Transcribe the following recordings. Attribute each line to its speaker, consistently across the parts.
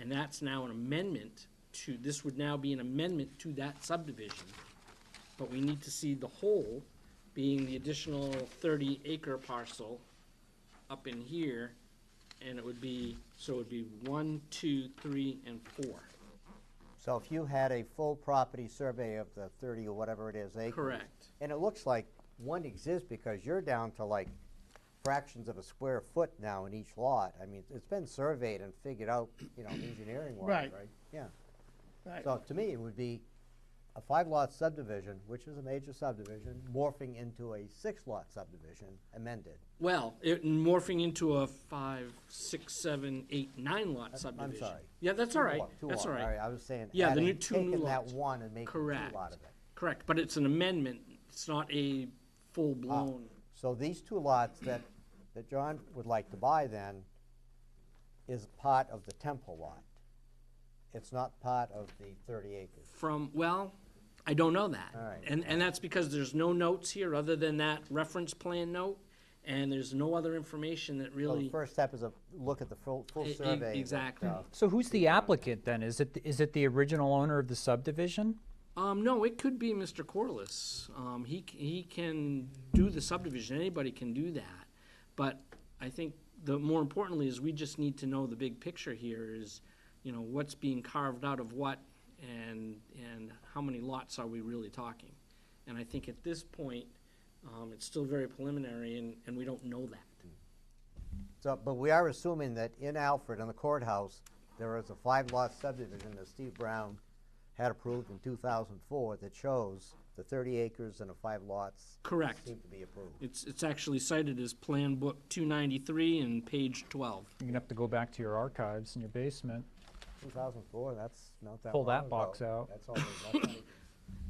Speaker 1: And that's now an amendment to, this would now be an amendment to that subdivision. But we need to see the whole being the additional thirty acre parcel up in here. And it would be, so it would be one, two, three, and four.
Speaker 2: So if you had a full property survey of the thirty or whatever it is acres.
Speaker 1: Correct.
Speaker 2: And it looks like one exists because you're down to like fractions of a square foot now in each lot. I mean, it's been surveyed and figured out, you know, engineering wise,
Speaker 3: Right.
Speaker 2: right? Yeah.
Speaker 3: Right.
Speaker 2: So to me, it would be a five lot subdivision, which is a major subdivision, morphing into a six lot subdivision amended.
Speaker 1: Well, it morphing into a five, six, seven, eight, nine lot
Speaker 2: I'm
Speaker 1: subdivision.
Speaker 2: sorry.
Speaker 1: Yeah, that's all
Speaker 2: Two
Speaker 1: right,
Speaker 2: lot- two
Speaker 1: that's
Speaker 2: lot,
Speaker 1: all right.
Speaker 2: I was saying,
Speaker 1: Yeah, the new
Speaker 2: adding,
Speaker 1: two new
Speaker 2: taking that
Speaker 1: lots.
Speaker 2: one and making a two lot of it.
Speaker 1: Correct. Correct, but it's an amendment, it's not a full-blown,
Speaker 2: So these two lots that, that John would like to buy then is part of the Temple lot. It's not part of the thirty acres.
Speaker 1: from, well, I don't know that.
Speaker 2: All right.
Speaker 1: And, and that's because there's no notes here, other than that reference plan note, and there's no other information that
Speaker 2: So the
Speaker 1: really,
Speaker 2: first step is Oh, a look at the full, full
Speaker 1: E- e-
Speaker 2: survey. that,
Speaker 1: exactly.
Speaker 2: uh,
Speaker 4: So who's the applicant then? Is it, is it the original owner of the subdivision?
Speaker 1: um, no, it could be Mr. Corliss. Um, he, c- he can do the subdivision, anybody can do that. But I think the, more importantly is we just need to know the big picture here is, you know, what's being carved out of what and, and how many lots are we really talking? And I think at this point, um, it's still very preliminary and, and we don't know that.
Speaker 2: So, but we are assuming that in Alfred, in the courthouse, there is a five-lot subdivision that Steve Brown had approved in two thousand four that shows the thirty acres and the five lots.
Speaker 1: Correct.
Speaker 2: Seem to be approved.
Speaker 1: It's, it's actually cited as Plan Book two ninety-three and page twelve.
Speaker 4: You're gonna have to go back to your archives in your basement.
Speaker 2: Two thousand four, that's not that
Speaker 4: Pull that
Speaker 2: long ago.
Speaker 4: box out.
Speaker 2: That's all, that's not even-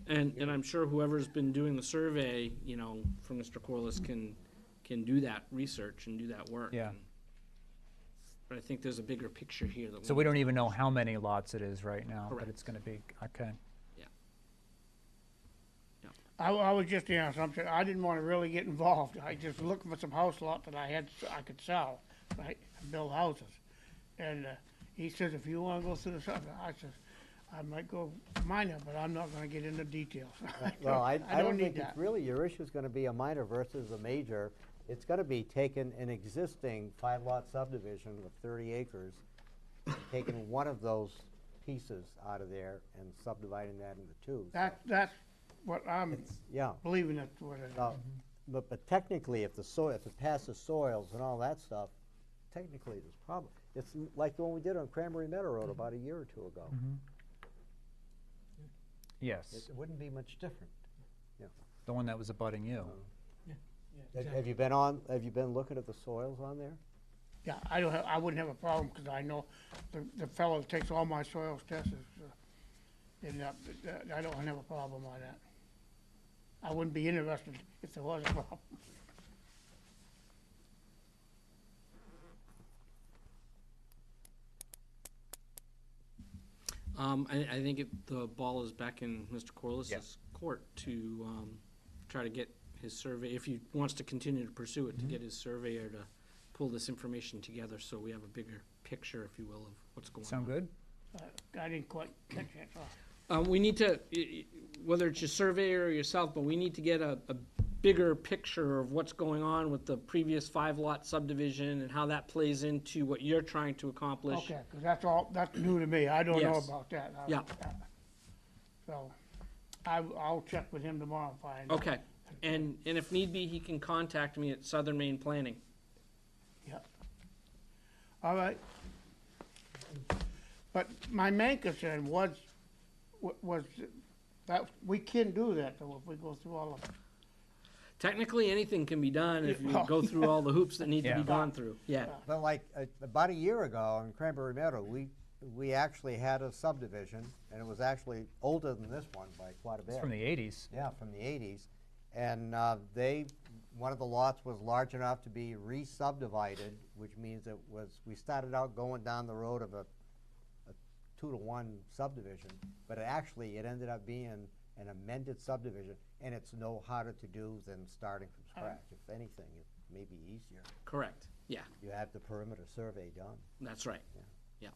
Speaker 1: And, and I'm sure whoever's been doing the survey, you know, for Mr. Corliss can, can do that research and do that work.
Speaker 4: Yeah.
Speaker 1: and- But I think there's a bigger picture here that.
Speaker 4: So we don't even know how many lots it is right now, but
Speaker 1: Correct.
Speaker 4: it's gonna be, okay.
Speaker 3: I, I was just the assumption, I didn't wanna really get involved, I just looking for some house lot that I had, I could sell, right, and build houses. And, uh, he says, if you wanna go through the sub, I says, I might go minor, but I'm not gonna get into details.
Speaker 2: Well, I, I don't
Speaker 3: need
Speaker 2: think it's
Speaker 3: that.
Speaker 2: really, your issue's gonna be a minor versus a major. It's gonna be taking an existing five-lot subdivision with thirty acres, taking one of those pieces out of there and subdividing that into two. So,
Speaker 3: That, that's what I'm
Speaker 2: Yeah,
Speaker 3: believing that's what it is.
Speaker 2: so,
Speaker 3: Mm-hmm.
Speaker 2: but, but technically, if the soil, if it passes soils and all that stuff, technically, there's problem. It's like the one we did on Cranberry Meadow Road
Speaker 3: Mm-hmm.
Speaker 2: about a year or two ago. It
Speaker 4: Yes,
Speaker 2: it wouldn't be much different.
Speaker 4: the one that was abutting you.
Speaker 2: Have- Have you been on, have you been looking at the soils on there?
Speaker 3: Yeah, I don't have, I wouldn't have a problem, cause I know the, the fellow that takes all my soils tests, is, uh, and, uh, I don't have a problem on that. I wouldn't be interested if there was a problem.
Speaker 1: Um, I, I think it, the ball is back in Mr. Corliss's court to, um, try to get his survey, if he wants to continue to pursue
Speaker 4: Mm-hmm.
Speaker 1: it, to get his surveyor to pull this information together so we have a bigger picture, if you will, of what's going on.
Speaker 4: Sound good?
Speaker 3: Uh, I didn't quite catch it. uh,
Speaker 1: Um, we need to, i- i- whether it's your surveyor or yourself, but we need to get a, a bigger picture of what's going on with the previous five lot subdivision and how that plays into what you're trying to accomplish.
Speaker 3: Okay, because that's all, that's new to me, I don't know
Speaker 1: Yes.
Speaker 3: about that. I-
Speaker 1: Yeah.
Speaker 3: So, I, I'll check with him tomorrow and find out.
Speaker 1: Okay, and, and if need be, he can contact me at Southern Maine Planning.
Speaker 3: Yep. All right. But my main concern was, wa- was that, we can do that, though, if we go through all of it.
Speaker 1: Technically, anything can be done if you
Speaker 3: Yeah.
Speaker 1: go through all the hoops that need to be
Speaker 4: Yeah.
Speaker 1: gone through, yeah.
Speaker 2: But like, uh, about a year ago in Cranberry Meadow, we, we actually had a subdivision, and it was actually older than this one by quite a bit.
Speaker 4: It's from the eighties.
Speaker 2: Yeah, from the eighties, and, uh, they, one of the lots was large enough to be re-subdivided, which means it was, we started out going down the road of a, a two-to-one subdivision, but it actually, it ended up being an amended subdivision, and it's no harder to do than starting from scratch. If anything, it may be easier.
Speaker 1: Correct, yeah,
Speaker 2: You have the perimeter survey done.
Speaker 1: that's right, yeah.